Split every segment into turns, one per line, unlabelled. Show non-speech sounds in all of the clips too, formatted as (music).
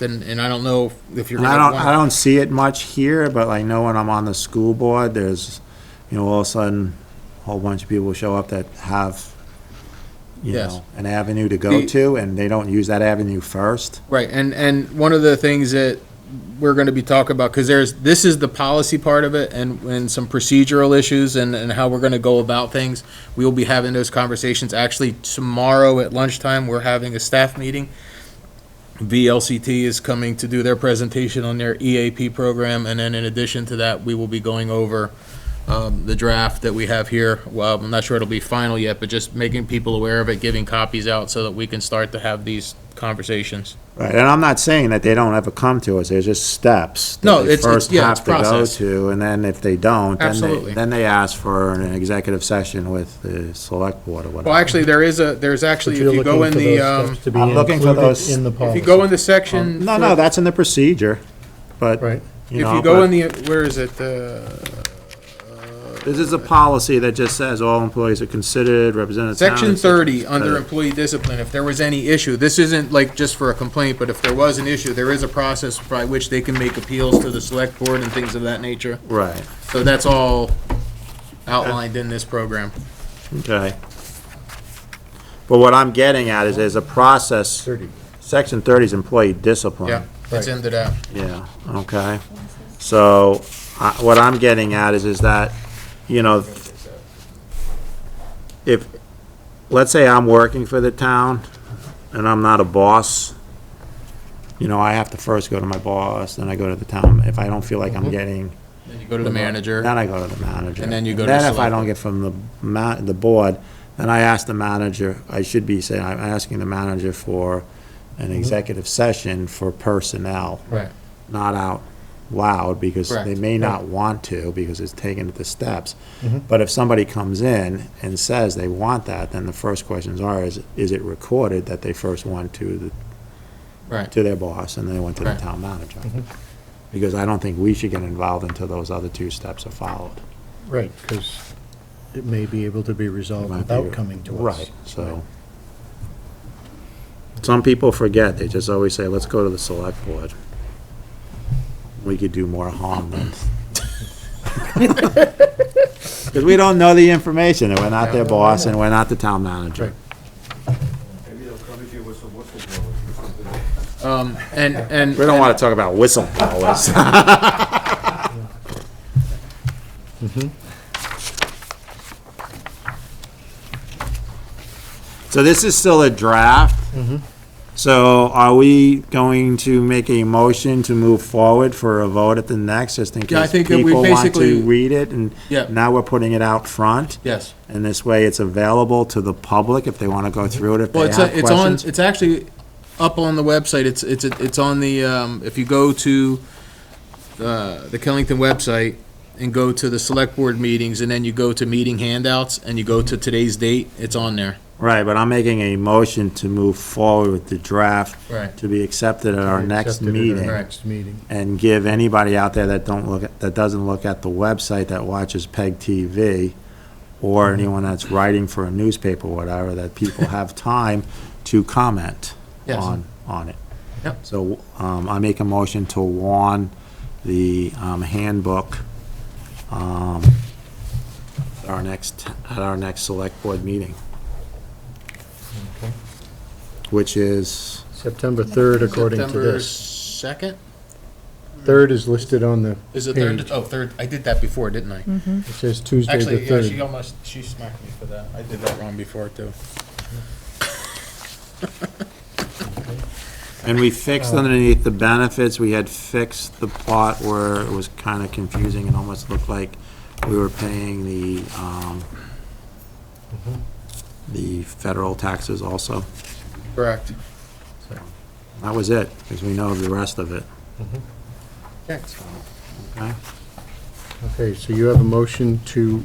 Then, and I don't know if you're
And I
gonna
don't, I
want,
don't see it much here, but I know when I'm on the school board, there's, you know, all of a sudden, a whole bunch of people show up that have, you
Yes.
know, an avenue to go
The-
to, and they don't use that avenue first.
right, and, and one of the things that we're gonna be talking about, cause there's, this is the policy part of it and, and some procedural issues and, and how we're gonna go about things. We will be having those conversations. Actually, tomorrow at lunchtime, we're having a staff meeting. VLCT is coming to do their presentation on their EAP program, and then in addition to that, we will be going over um, the draft that we have here. Well, I'm not sure it'll be final yet, but just making people aware of it, giving copies out so that we can start to have these conversations.
Right, and I'm not saying that they don't ever come to us, there's just steps. that
No,
they
it's- it's-
first
yeah, it's
have to go
process.
To, and then if they don't, then
Absolutely.
they, then they ask for an executive session with the select board or
Well,
whatever.
actually, there is a, there's actually, if
You're
you go in
looking for
the,
those
um,
steps to be
I'm looking for
included
those-
In the
if
policy.
you go in the section.
No, no, that's in the procedure, but,
Right.
you
If
know.
you
but-
go in the, where is it? Uh,
This is a policy that just says all employees are considered representatives.
Section 30, under employee discipline, if there was any issue, this isn't like just for a complaint, but if there was an issue, there is a process by which they can make appeals to the select board and things of that nature.
Right,
So that's all outlined in this program.
okay. But what I'm getting at is there's a process, section 30 is employee discipline.
Yeah, it's into that.
Yeah, okay. So, I- what I'm getting at is, is that, you know, if, let's say I'm working for the town, and I'm not a boss, you know, I have to first go to my boss, then I go to the town, if I don't feel like
Mm-hmm.
I'm getting
Then you go to the manager.
Then I go to the manager.
And then you go to
Then if I
select-
don't get from the ma, the board, then I ask the manager, I should be saying, I'm asking the manager for an executive session for personnel,
Right.
not out loud, because they
Correct. Mm-hmm.
may not want to, because it's taken at the steps.
Mhm.
But if somebody comes in and says they want that, then the first questions are, is, is it recorded that they first went to the
Right.
to their boss, and then they went to the
Right. Mm-hmm.
town manager. Because I don't think we should get involved until those other two steps are followed.
Right, because it may be able to be resolved
Might be-
without coming to us.
Right, so. Some people forget, they just always say, let's go to the select board. We could do more harm
(laughs)
than. (laughs) Because we don't know the information, and we're not their boss, and we're not the town manager.
Right.
Maybe they'll come if you with some whistleblowers or something.
Um, and, and.
We don't want to talk about
(laughs)
whistleblowers. Mm-hmm. So this is still a draft.
Mm-hmm.
So are we going to make a motion to move forward for a vote at the next, just in
Yeah, I
case
think that we
people want
basically-
to read it? And
Yeah.
now we're putting it out front,
Yes.
and this way it's available to the public if they want to go through it, if
Well,
they
it's, uh,
have
it's on,
questions.
it's actually up on the website. It's, it's, it's on the, um, if you go to, uh, the Killington website and go to the select board meetings and then you go to meeting handouts and you go to today's date, it's on there.
Right, but I'm making a motion to move forward with the draft
Right.
to be accepted at our next
Accepted at our
meeting
Next meeting.
and give anybody out there that don't look, at- that doesn't look at the website that watches PEG TV or anyone that's writing for a newspaper or whatever, that people have time to comment
Yes.
on, on it.
Yep.
So, um, I make a motion to warn the, um, handbook, um, our next, at our next select board meeting,
Okay.
which is,
September 3rd, according to
September
this.
second?
3rd is listed on the,
Is it
Page. Mm-hmm.
third? Oh, third. I did that before, didn't I?
it says Tuesday the
Actually, yeah, she
3rd.
almost, she smacked me for that. I did that wrong before too.
And we
Uh,
fixed underneath the benefits, we had fixed the plot where it was kind of confusing and almost looked like we were paying the, um,
Mm-hmm.
the federal taxes also.
Correct.
That was it, because we know the rest of it, okay?
Okay, so you have a motion to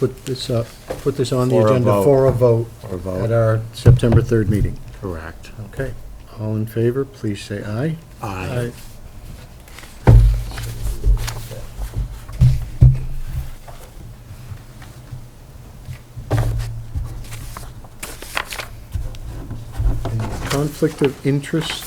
put this up, put this on the
For a
agenda
vote.
for a vote
Or
at
vote,
our September 3rd meeting.
correct.
Okay. All in favor, please say aye.
Aye.
Any Conflict of interest